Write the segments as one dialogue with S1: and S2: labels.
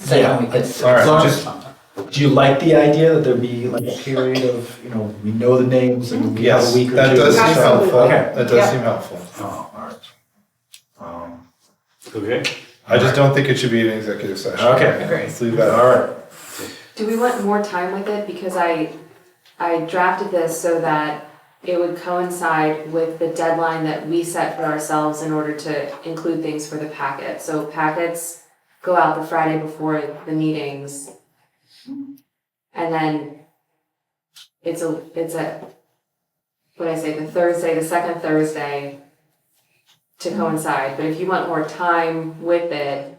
S1: say
S2: Yeah,
S1: when we get
S2: it's-
S1: to
S2: all
S1: it.
S2: right,
S1: Long-
S2: just- Do you like the idea that there be like a period of, you know, we know the names and we have
S3: Yes,
S2: a week or two?
S3: that does seem
S2: so-
S3: helpful.
S2: Okay.
S3: That does
S4: Yeah.
S3: seem helpful.
S2: Oh, all right. Um,
S5: Okay.
S3: I just don't think it should be an executive session.
S2: Okay.
S4: Agreed.
S3: Let's leave that.
S2: All right.
S6: Do we want more time with it? Because I, I drafted this so that it would coincide with the deadline that we set for ourselves in order to include things for the packet. So packets go out the Friday before the meetings. And then it's a, it's a, what I say, the Thursday, the second Thursday to coincide. But if you want more time with it,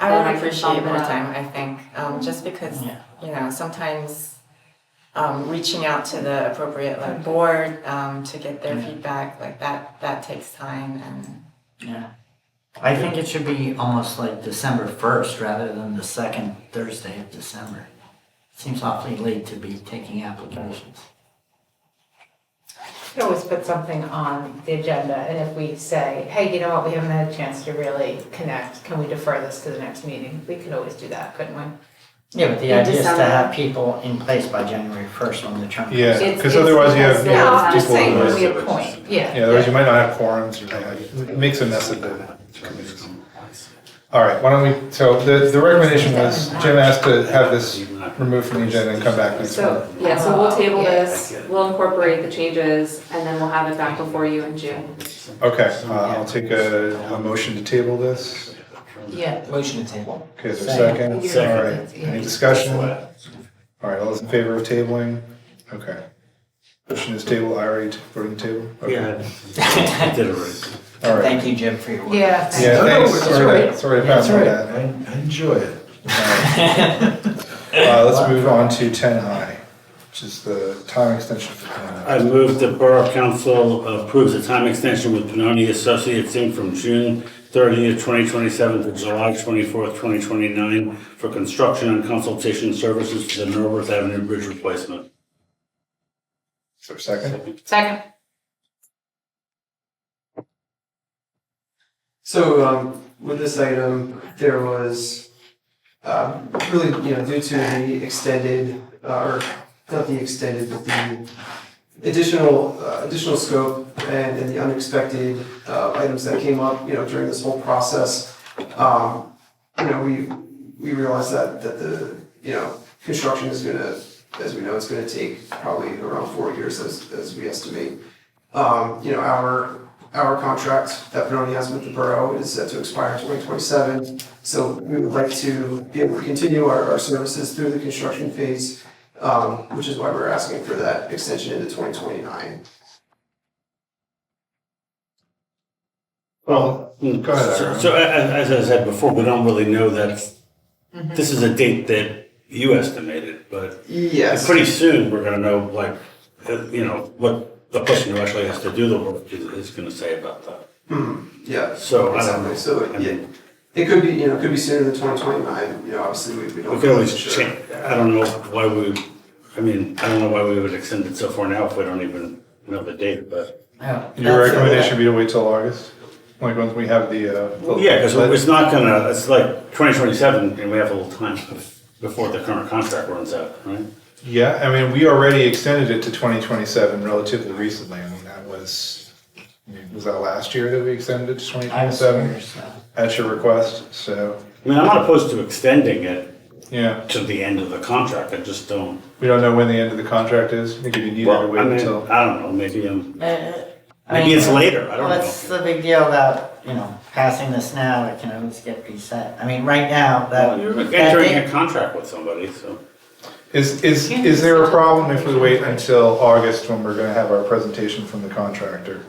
S4: I
S6: Then
S4: would
S6: I can
S4: appreciate
S6: bump it
S4: more
S6: up.
S4: time, I think, um, just because,
S1: Yeah.
S4: you know, sometimes um, reaching out to the appropriate like board um, to get their feedback, like that, that takes time and.
S1: Yeah. I think it should be almost like December first rather than the second Thursday of December. Seems awfully late to be taking applications.
S7: could always put something on the agenda, and if we say, hey, you know what, we haven't had a chance to really connect, can we defer this to the next meeting? We could always do that, couldn't we?
S1: Yeah, but the
S6: In
S1: idea is to
S6: December.
S1: have people in place by January first when the term. comes.
S3: Yeah,
S6: It's-
S3: because
S6: it's
S3: otherwise you have
S6: because
S3: you
S6: they're
S7: No,
S3: have
S7: I'm just
S3: people.
S7: saying,
S3: who
S7: when
S3: are-
S7: we appoint, yeah.
S3: Yeah, otherwise you might not have quorums or something. It makes a mess of the committees. All right, why don't we, so the, the recommendation was, Jim asked to have this removed from the agenda and come back next month.
S6: So, yeah, so we'll table
S7: Yeah.
S6: this, we'll incorporate the changes, and then we'll have it back before you in June.
S3: Okay, uh, I'll take a, a motion to table this.
S7: Yeah.
S2: Motion to table.
S3: Okay, is there a second?
S2: Second.
S3: All right, any discussion? All right, all those in favor of tabling? Okay. Motion is table, I already voted to table? Okay.
S5: Yeah. I did it right.
S3: All right.
S1: Thank you, Jim, for your work.
S7: Yeah. thank
S3: Yeah,
S2: No, no,
S3: thanks,
S2: it's
S3: sorry,
S2: all
S3: about- sorry about
S2: That's right.
S3: that.
S2: I I enjoy it.
S3: Uh, let's move on to ten I, which is the time extension for ten I.
S5: I move the Borough Council approves the time extension with Benoni Associates Inc. from June 30th, 2027 to July 24th, 2029 for construction and consultation services for the Norworth Avenue Bridge replacement.
S3: Is there a second?
S7: Second,
S8: So um, with this item, there was um, really, you know, due to the extended, uh, or not the extended, but the additional, uh, additional scope and and the unexpected uh, items that came up, you know, during this whole process, um, you know, we, we realized that, that the, you know, construction is gonna, as we know, it's gonna take probably around four years as, as we estimate. Um, you know, our, our contract that Benoni has with the borough is set to expire twenty twenty-seven. So we would like to be able to continue our, our services through the construction phase, um, which is why we're asking for that extension into twenty twenty-nine.
S5: Well, go
S3: ahead,
S5: So,
S3: Aaron.
S5: so a- a- as I said before, we don't really know that, this is a date that you estimated, but
S8: Yes.
S5: pretty soon, we're gonna know, like, uh, you know, what the person who actually has to do the work is, is gonna say about that.
S8: Hmm, yeah.
S5: So, I don't know.
S8: Exactly, so,
S5: I
S8: yeah,
S5: mean,
S8: it could be, you know, it could be sooner than twenty twenty-nine, you know, obviously, we, we don't.
S5: We could always
S8: know for sure.
S5: change, I don't know why we, I mean, I don't know why we would extend it so far now if we don't even know the date, but.
S1: Oh,
S3: Your
S1: that's-
S3: recommendation would be to wait till August, like once we have the, uh. the-
S5: Yeah, because it's not gonna, it's like twenty twenty-seven, and we have a little time before the current contract runs out, right?
S3: Yeah, I mean, we already extended it to twenty twenty-seven relatively recently, I mean, that was, I mean, was that last year that we extended it to twenty
S1: I was
S3: twenty-seven?
S1: curious, though.
S3: At your request, so,
S5: I mean, I'm not opposed to extending it
S3: yeah,
S5: to the end of the contract, I just don't.
S3: we don't know when the end of the contract is, I think if you need to
S5: Well, I
S3: wait
S5: mean,
S3: until.
S5: I don't know, maybe, um,
S1: Uh, I
S5: maybe
S1: mean,
S5: it's later, I don't
S1: Well, that's
S5: know.
S1: the big deal about, you know, passing this now, it can always get reset. I mean, right now, that.
S5: Well, You're
S1: that
S5: entering
S1: date-
S5: a contract with somebody, so.
S3: Is, is, is there a problem if we wait until August when we're gonna have our presentation from the contractor?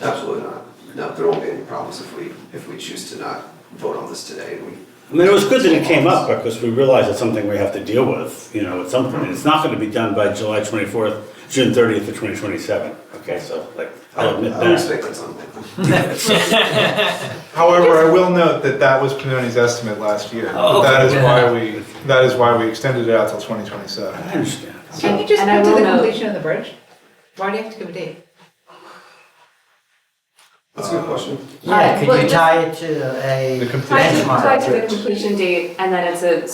S8: Absolutely not, no, there won't be any problems if we, if we choose to not vote on this today, and we
S5: I mean, it was good that it came up because we realized it's something we have to deal with, you know, at some point. It's not going to be done by July 24th, June 30th of 2027. Okay, so like, I'll admit
S8: I
S5: that.
S8: respect that something.
S3: However, I will note that that was Pinoni's estimate last year.
S6: Oh,
S3: That is why we, that is why we extended it out till twenty twenty-seven.
S5: I understand.
S7: can you just
S6: And I
S7: go
S6: will
S7: to the
S6: note-
S7: completion of the bridge? Why do you have to give a date?
S8: That's a good question.
S1: Yeah,
S6: Well,
S1: could you
S6: just-
S1: tie it to a
S3: The complete-
S6: Tied to,
S1: benchmark?
S6: tied to the completion date, and then it's a